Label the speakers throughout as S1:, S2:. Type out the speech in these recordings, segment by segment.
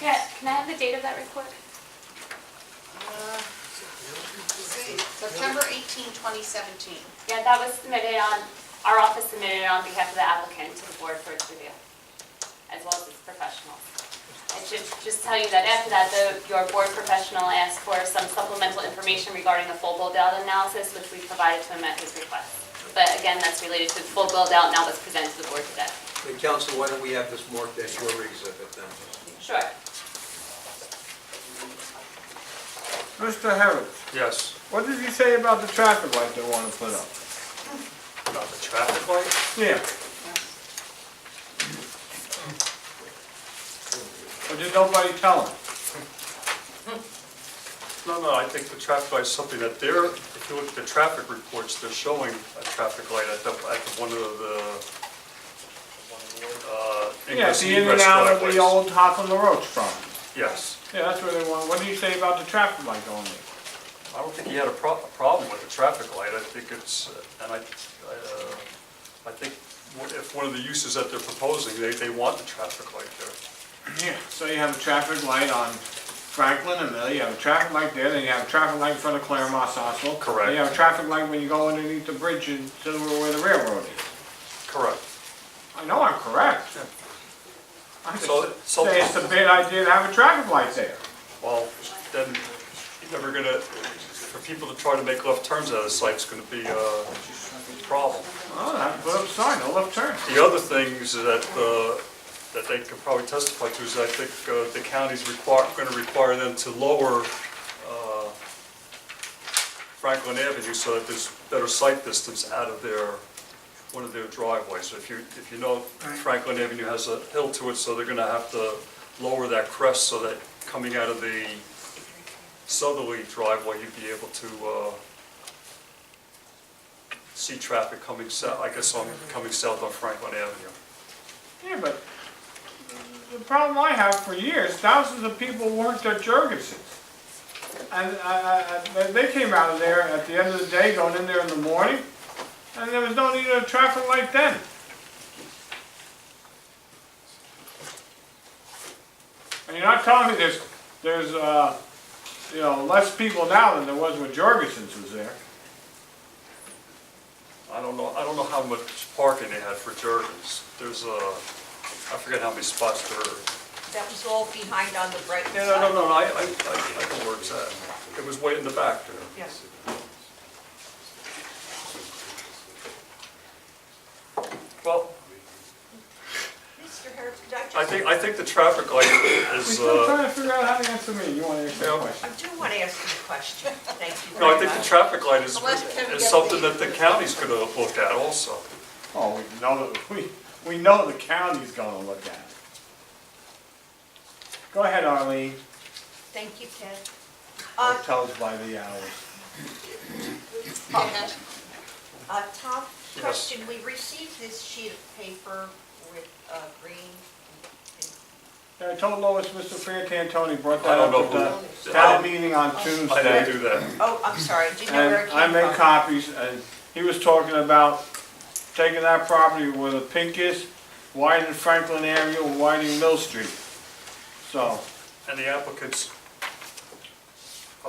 S1: Can I have the date of that report?
S2: Uh, September 18, 2017.
S1: Yeah, that was submitted on, our office submitted on behalf of the applicant to the board for its review, as well as its professionals. I should just tell you that after that, the, your board professional asked for some supplemental information regarding the full build-out analysis, which we provided to him at his request. But again, that's related to the full build-out now that's presented to the board today.
S3: And counsel, why don't we have this marked as your exhibit then?
S1: Sure.
S4: Mr. Harris,
S5: Yes.
S4: what did you say about the traffic light they want to put up?
S5: About the traffic light?
S4: Yeah. Or did nobody tell him?
S5: No, no, I think the traffic light is something that they're, if you look at the traffic reports, they're showing a traffic light at the, at the one of the, uh,
S4: Yeah, it's
S5: ingress and
S4: the in and
S5: egress
S4: out of
S5: driveways.
S4: the old top of the roach farm.
S5: Yes.
S4: Yeah, that's where they want, what did you say about the traffic light going there?
S5: I don't think he had a pro, a problem with the traffic light. I think it's, and I, I, uh, I think what- if one of the uses that they're proposing, they, they want the traffic light there.
S4: Yeah, so you have a traffic light on Franklin and Mill, you have a traffic light there, then you have a traffic light in front of Claremont Sosol.
S5: Correct.
S4: You have a traffic light when you go underneath the bridge and to where the railroad is.
S5: Correct.
S4: I know I'm correct. I just
S5: So, so.
S4: say it's a bad idea to have a traffic light there.
S5: Well, then, you're never gonna, for people to try to make left turns out of the site's gonna be uh, a problem.
S4: Well, I put up a sign, no left turn.
S5: The other things that, uh, that they could probably testify to is I think uh, the county's require, gonna require them to lower uh, Franklin Avenue so that there's better sight distance out of their, one of their driveways. So if you, if you know Franklin Avenue has a hill to it, so they're gonna have to lower that crest so that coming out of the southerly driveway, you'd be able to uh, see traffic coming south, I guess on, coming south on Franklin Avenue.
S4: Yeah, but the problem I have for years, thousands of people weren't their Jurgensen's. And uh, uh, they came out of there at the end of the day, going in there in the morning, and there was no need of traffic light then. And you're not telling me there's, there's, uh, you know, less people now than there was when Jurgensen's was there.
S5: I don't know, I don't know how much parking they had for Jergens. There's a, I forget how many spots there were.
S6: That was all behind on the right side.
S5: Yeah, no, no, no, I, I, I I know where it's at. It was way in the back there.
S6: Yes.
S5: Well,
S6: Mr. Harris, could I just?
S5: I think, I think the traffic light
S4: We're
S5: is,
S4: still
S5: uh,
S4: trying to figure out how to answer me, you wanna answer the
S5: Yeah.
S4: question?
S6: I do want to ask you a question. Thank you
S5: no, I
S6: very
S5: think the
S6: much.
S5: traffic light is,
S2: Unless Kevin
S5: is
S2: gets
S5: something
S2: the-
S5: that the county's gonna look at also.
S4: Oh, we know, that- we, we know the county's gonna look at it. Go ahead, Arlene,
S6: Thank you, Ken.
S4: Or
S6: Uh,
S4: tell us by the hours.
S6: uh, Tom,
S5: Yes.
S6: question, we received this sheet of paper with, uh, green.
S4: Yeah, I told Lois, Mr. Frantantoni brought that
S5: I don't
S4: up
S5: know
S4: at
S5: who-
S4: the
S5: I
S4: town meeting on
S5: I didn't
S4: Tuesday.
S5: do that.
S6: Oh, I'm sorry, do you know where it
S4: And
S6: came
S4: I
S6: from?
S4: made copies, and he was talking about taking that property where the pink is, widening Franklin Avenue and widening Mill Street. So,
S5: And the applicants, uh,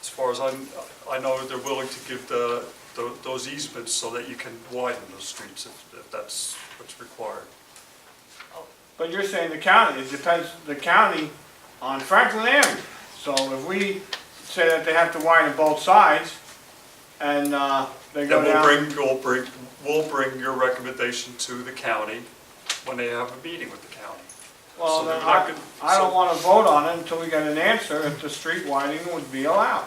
S5: as far as I'm, I know they're willing to give the, tho- those easements so that you can widen those streets if, if that's what's required.
S4: But you're saying the county, it depends, the county on Franklin Avenue. So if we say that they have to widen both sides, and uh, they go
S5: Then we'll
S4: down,
S5: bring, we'll bring, we'll bring your recommendation to the county when they have a meeting with the county.
S4: well,
S5: so
S4: then
S5: they're not
S4: I,
S5: gonna-
S4: I don't
S5: so-
S4: wanna vote on it until we get an answer if the street widening would be allowed.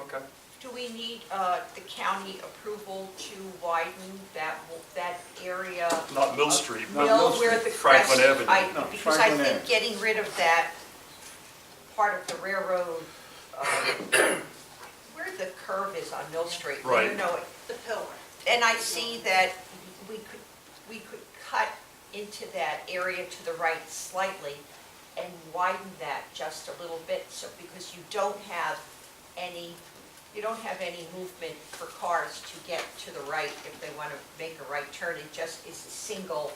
S5: Okay.
S6: Do we need, uh, the county approval to widen that, w- that area?
S5: Not Mill Street, but
S6: Mill where the crest.
S5: Franklin Avenue.
S6: I-
S4: No,
S6: Because I
S4: Franklin
S6: think
S4: Ave.
S6: getting rid of that part of the railroad, uh, where the curve is on Mill Street. where You
S5: Right.
S6: know it.
S2: The pillar.
S6: And I see that we could, we could cut into that area to the right slightly and widen that just a little bit, so, because you don't have any, you don't have any movement for cars to get to the right if they want to make a right turn. It just is a single